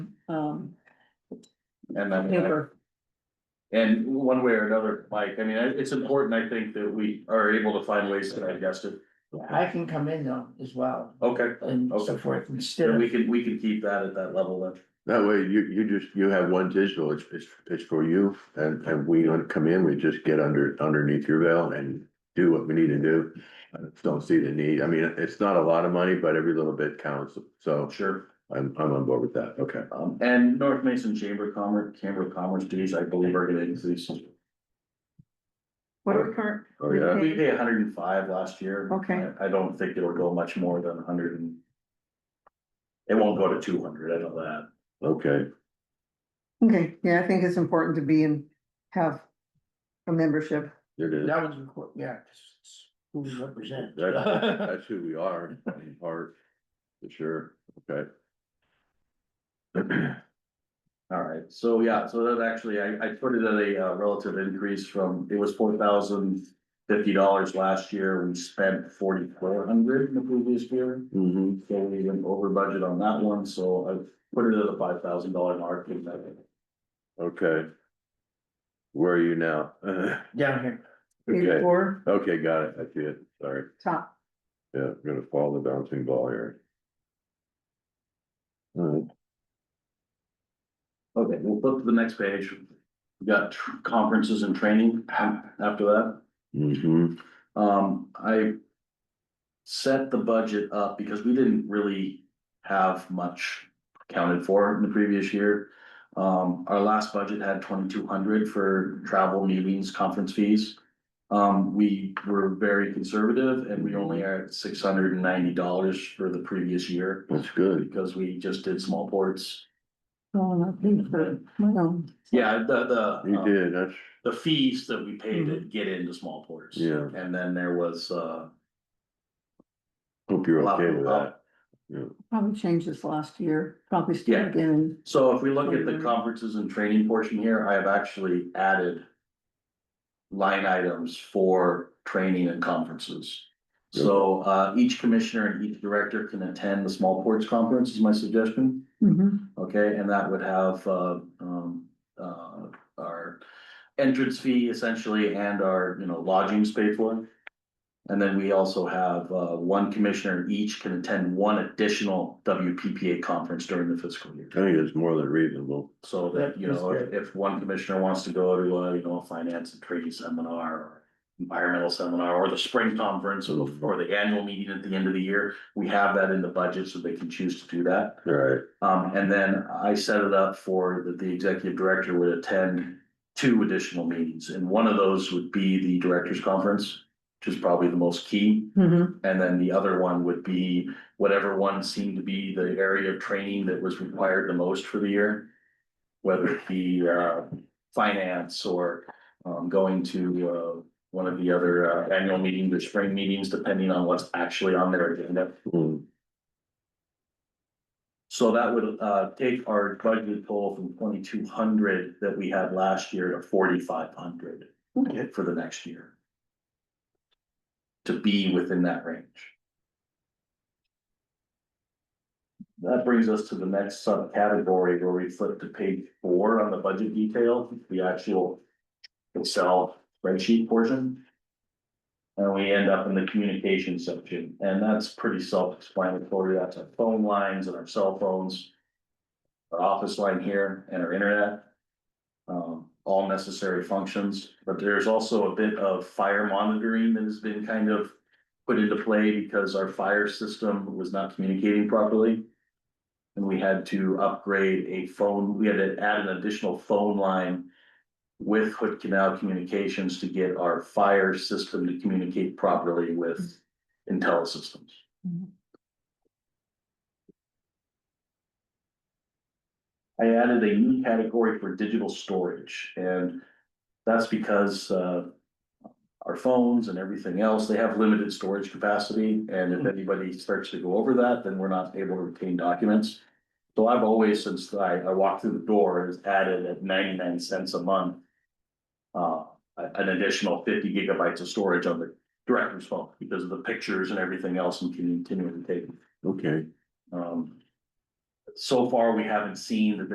um, And then, paper. and one way or another, Mike, I mean, it- it's important, I think, that we are able to find ways to digest it. Yeah, I can come in though as well Okay, and so Okay. forth instead then of, we can, we can keep that at that level then. That way you, you just, you have one digital, it's, it's, it's for you and, and we don't come in, we just get under, underneath your veil and do what we need to do. I Don't see the need. I mean, it's not a lot of money, but every little bit counts. So Sure. I'm, I'm on board with that. Okay. Um, and North Mason Chamber of Commerce, Chamber of Commerce dues, I believe are gonna increase. uh, What are we current? Oh, yeah. We paid hundred and five last year. Okay. I I don't think it'll go much more than hundred and. It won't go to two hundred, I know that. Okay. Okay, yeah, I think it's important to be and have a membership. There it is. that was, important, yeah. 'cause it's Who we represent. That- That's who we are in part. For sure. Okay. All right, so yeah, so that actually, I, I put it at a uh, relative increase from, it was four thousand fifty dollars last year, we spent forty-four hundred in the previous year. Mhm. So we went over budget on that one, so I put it at a five thousand dollar mark. and that- Okay. Where are you now? Down here. Okay, Or okay, got it. I see it. Sorry. top, Yeah, I'm gonna follow the bouncing ball here. Alright, Okay, we'll flip to the next page. We got tr- conferences and training after that. mm-hmm, Um, I. Set the budget up because we didn't really have much accounted for in the previous year. Um, our last budget had twenty-two hundred for travel, meetings, conference fees. Um, we were very conservative and we only are at six hundred and ninety dollars for the previous year. that's good. Because we just did small boards. oh, I think for, well, Yeah, the, the. You um, did, that's, the fees that we pay to get into small ports. Yeah. And then there was, uh. hope you're lot- okay with that. probably changed this last year, probably still Yeah. again. So if we look at the Mhm. conferences and training portion here, I have actually added. Line items for training and conferences. So, uh, each commissioner and each director can attend the small ports conference is my suggestion. Mm-hmm. Mhm. Okay, and that would have, uh, um, uh, our entrance fee essentially and our, you know, lodgings paid for. And then we also have, uh, one commissioner each can attend one additional WPPA conference during the fiscal year. I think it's more than reasonable. So that, you know, if, if one commissioner wants to go to, uh, you know, a finance and trade seminar or environmental seminar or the spring conference or the, or the annual meeting at the end of the year, we have that in the budget so they can choose to do that. Alright, Um, and then I set it up for that the executive director would attend two additional meetings, and one of those would be the directors conference. Which is probably the most key, Mhm. and then the other one would be whatever one seemed to be the area of training that was required the most for the year. Whether it be uh finance or um going to uh one of the other uh annual meetings or spring meetings, depending on what's actually on their agenda. mm, So that would uh take our budget total from twenty two hundred that we had last year to forty five hundred Mm-hmm. Okay. for the next year. To be within that range. That brings us to the next subcategory where we flip to page four on the budget detail, the actual Excel spreadsheet portion. And we end up in the communication section, and that's pretty self-explanatory, that's our phone lines and our cell phones. Our office line here and our internet. Um, all necessary functions, but there's also a bit of fire monitoring that has been kind of. Put into play because our fire system was not communicating properly. And we had to upgrade a phone, we had to add an additional phone line. With Hood Canal Communications to get our fire system to communicate properly with IntelliSystems. I added a new category for digital storage and that's because uh. Our phones and everything else, they have limited storage capacity and if anybody starts to go over that, then we're not able to retain documents. So I've always, since I I walked through the door, is added at ninety nine cents a month. Uh, a- an additional fifty gigabytes of storage on the director's phone because of the pictures and everything else and continuing to take. okay. Um. So far, we haven't seen that